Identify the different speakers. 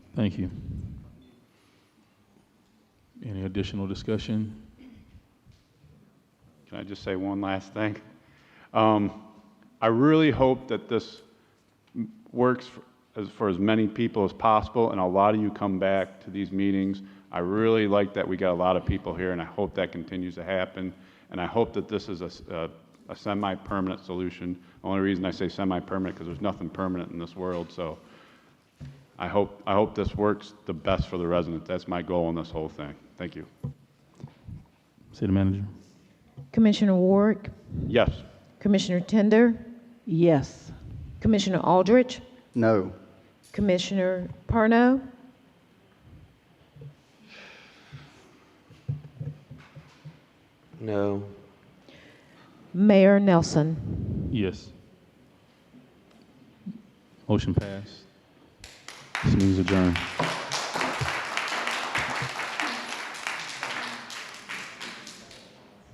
Speaker 1: Thank you. Any additional discussion?
Speaker 2: Can I just say one last thing? Um, I really hope that this m- works for as, for as many people as possible, and a lot of you come back to these meetings. I really like that we got a lot of people here, and I hope that continues to happen. And I hope that this is a, s- a- a semi-permanent solution. The only reason I say semi-permanent, because there's nothing permanent in this world, so I hope, I hope this works the best for the residents. That's my goal in this whole thing. Thank you.
Speaker 1: City Manager?
Speaker 3: Commissioner Warwick,
Speaker 2: Yes?
Speaker 3: Commissioner Tender,
Speaker 4: Yes.
Speaker 3: Commissioner Aldrich,
Speaker 5: No.
Speaker 3: Commissioner Parno,
Speaker 6: No.
Speaker 3: Mayor Nelson.
Speaker 1: Yes. Motion passed. This means adjourned.